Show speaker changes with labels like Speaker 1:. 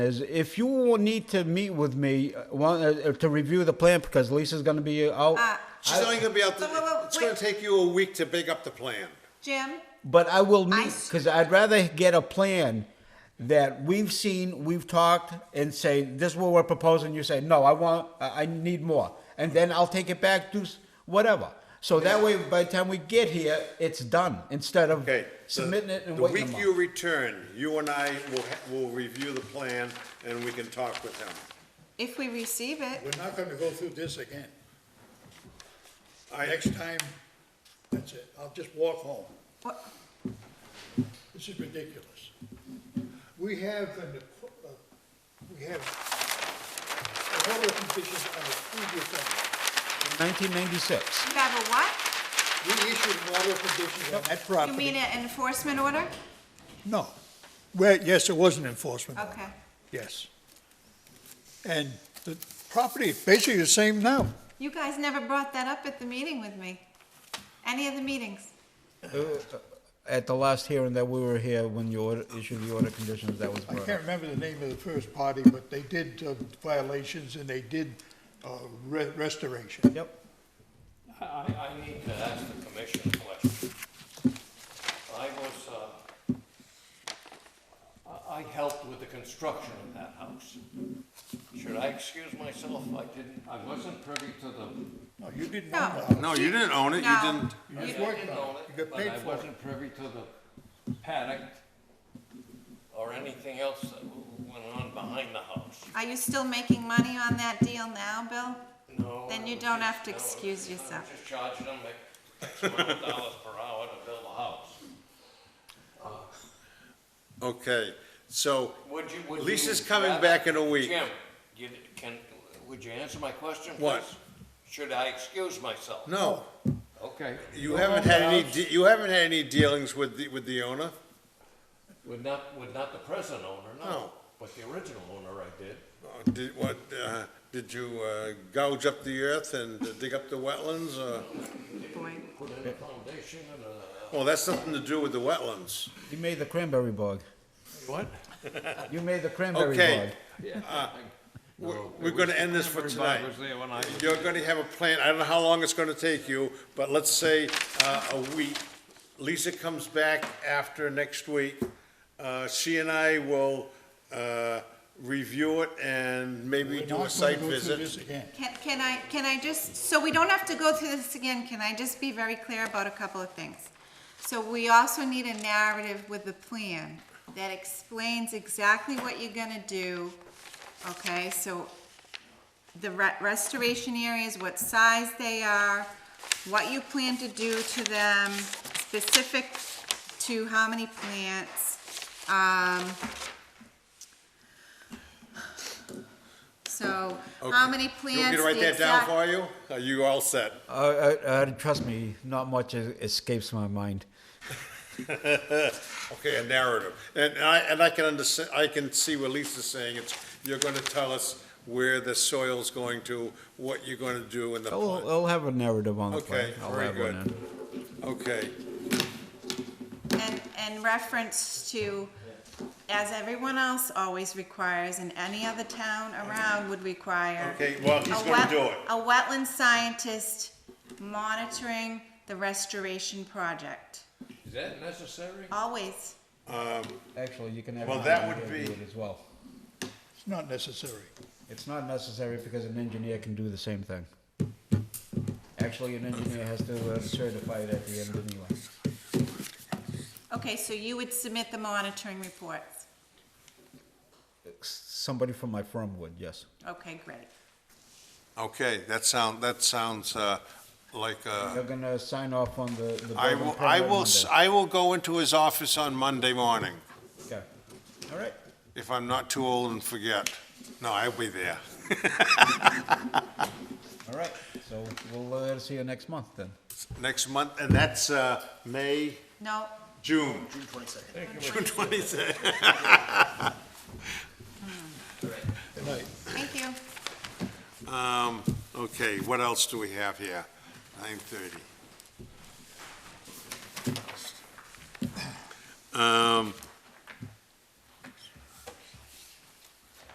Speaker 1: is if you need to meet with me uh, one, uh, to review the plan because Lisa's going to be uh, out.
Speaker 2: She's not even gonna be out,
Speaker 3: Wait, wait, wait,
Speaker 2: there. it's gonna
Speaker 3: wait.
Speaker 2: take you a week to big up the plan.
Speaker 3: Jim,
Speaker 1: But I will meet
Speaker 3: s-
Speaker 1: because I'd rather get a plan that we've seen, we've talked, and say this is what we're proposing. You say no, I want, I I need more, and then I'll take it back, do s- whatever. So that way, by the time we get here, it's done instead of
Speaker 2: Okay. so
Speaker 1: submitting it and
Speaker 2: The
Speaker 1: waiting. a
Speaker 2: week
Speaker 1: month.
Speaker 2: you return, you and I will, ha- will review the plan and we can talk with him.
Speaker 3: if we receive it,
Speaker 4: We're not gonna go through this again.
Speaker 2: I,
Speaker 4: Next time, that's it. I'll just walk home.
Speaker 3: what-
Speaker 4: This is ridiculous. We have, an equ- uh, we have a lot of conditions on the previous one.
Speaker 1: 1996.
Speaker 3: you have a what?
Speaker 4: We issued an order of conditions on that
Speaker 3: You
Speaker 4: property.
Speaker 3: mean an enforcement order?
Speaker 4: No. Well, yes, it was an enforcement. order.
Speaker 3: Okay.
Speaker 4: Yes. And the property, is basically the same now.
Speaker 3: You guys never brought that up at the meeting with me. Any of the meetings?
Speaker 1: At the last hearing that we were here, when you order, issued the order conditions, that was
Speaker 4: I
Speaker 1: brought up.
Speaker 4: can't remember the name of the first party, but they did uh, violations and they did uh, re- restoration.
Speaker 1: Yep.
Speaker 5: I, I need to ask the commission a question. I was, uh, I, I helped with the construction of that house. Should I excuse myself? I didn't, I wasn't privy to the,
Speaker 4: No, you didn't
Speaker 3: No.
Speaker 4: own the house.
Speaker 2: no, you didn't own it, you
Speaker 3: No.
Speaker 2: didn't,
Speaker 5: I
Speaker 4: just worked on
Speaker 5: didn't
Speaker 4: it.
Speaker 5: own
Speaker 4: You
Speaker 5: it,
Speaker 4: got
Speaker 5: but
Speaker 4: paid
Speaker 5: I
Speaker 4: for it.
Speaker 5: wasn't privy to the paddock or anything else that w- went on behind the house.
Speaker 3: Are you still making money on that deal now, Bill?
Speaker 5: No.
Speaker 3: Then
Speaker 5: I
Speaker 3: you
Speaker 5: was
Speaker 3: don't
Speaker 5: just-
Speaker 3: have to
Speaker 5: no, I was-
Speaker 3: excuse
Speaker 5: I was
Speaker 3: yourself.
Speaker 5: just charging them like X amount of dollars per hour to build a house.
Speaker 2: okay, so,
Speaker 5: Would you, would you?
Speaker 2: Lisa's coming
Speaker 5: rather-
Speaker 2: back in a week.
Speaker 5: Jim, you, can, would you answer my question, please?
Speaker 2: What?
Speaker 5: Should I excuse myself?
Speaker 2: no,
Speaker 5: Okay.
Speaker 2: you
Speaker 5: Go
Speaker 2: haven't
Speaker 5: home
Speaker 2: had
Speaker 5: now.
Speaker 2: any, de- you haven't had any dealings with the, with the owner?
Speaker 5: With not, with not the present owner, no.
Speaker 2: No.
Speaker 5: But the original owner I did.
Speaker 2: Uh, Did, what, uh, did you uh, gouge up the earth and dig up the wetlands, or?
Speaker 3: Boy.
Speaker 5: Put in a foundation and a.
Speaker 2: Well, that's nothing to do with the wetlands.
Speaker 1: You made the cranberry bog.
Speaker 5: What?
Speaker 1: You made the cranberry bog.
Speaker 2: Okay, Uh, we're- we're gonna end this for
Speaker 5: Everybody
Speaker 2: tonight.
Speaker 5: was there when I was-
Speaker 2: You're gonna have a plan, I don't know how long it's gonna take you, but let's say, uh, a week. Lisa comes back after next week. Uh, she and I will, uh, review it and maybe
Speaker 4: We're not
Speaker 2: do
Speaker 4: gonna
Speaker 2: a site
Speaker 4: go through
Speaker 2: visit.
Speaker 4: this again.
Speaker 3: Can, can I, can I just, so we don't have to go through this again, can I just be very clear about a couple of things? So we also need a narrative with the plan that explains exactly what you're gonna do, okay? So the re- restoration areas, what size they are, what you plan to do to them, specific to how many plants. Um, so how many plants?
Speaker 2: You want me to write
Speaker 3: the
Speaker 2: that down
Speaker 3: exact-
Speaker 2: for you? Are you all set?
Speaker 1: Uh, uh, uh, trust me, not much es- escapes my mind.
Speaker 2: Okay, a narrative. And I, and I can understand, I can see what Lisa's saying, it's, you're gonna tell us where the soil's going to, what you're gonna do in the
Speaker 1: I'll,
Speaker 2: plan.
Speaker 1: I'll have a narrative on the
Speaker 2: Okay,
Speaker 1: plan. I'll
Speaker 2: very
Speaker 1: have one
Speaker 2: good. Okay,
Speaker 3: And, and reference to, as everyone else always requires, and any other town around would require.
Speaker 2: okay, well, he's
Speaker 3: a
Speaker 2: gonna
Speaker 3: wet-
Speaker 2: do it.
Speaker 3: A wetland scientist monitoring the restoration project,
Speaker 5: Is that necessary?
Speaker 3: always.
Speaker 1: in. Actually, you can have.
Speaker 2: Well,
Speaker 1: an
Speaker 2: that would
Speaker 1: engineer do
Speaker 2: be-
Speaker 1: it As well.
Speaker 4: It's not necessary.
Speaker 1: It's not necessary because an engineer can do the same thing. Actually, an engineer has to uh, certify it at the end anyway.
Speaker 3: Okay, so you would submit the monitoring reports.
Speaker 1: Somebody from my firm would, yes.
Speaker 3: Okay, great.
Speaker 2: Okay, that sound, that sounds uh, like, uh,
Speaker 1: They're gonna sign off on the. the
Speaker 2: I
Speaker 1: building
Speaker 2: will,
Speaker 1: permit
Speaker 2: I will, s-
Speaker 1: Monday.
Speaker 2: I will go into his office on Monday morning,
Speaker 1: Okay. All right.
Speaker 2: if I'm not too old and forget. No, I'll be there.
Speaker 1: All right. So we'll uh, see you next month then.
Speaker 2: Next month, and that's uh, May,
Speaker 3: No,
Speaker 2: June. June twenty-second.
Speaker 4: Good night.
Speaker 3: thank you.
Speaker 2: Um, okay, what else do we have here? Nine thirty. Um,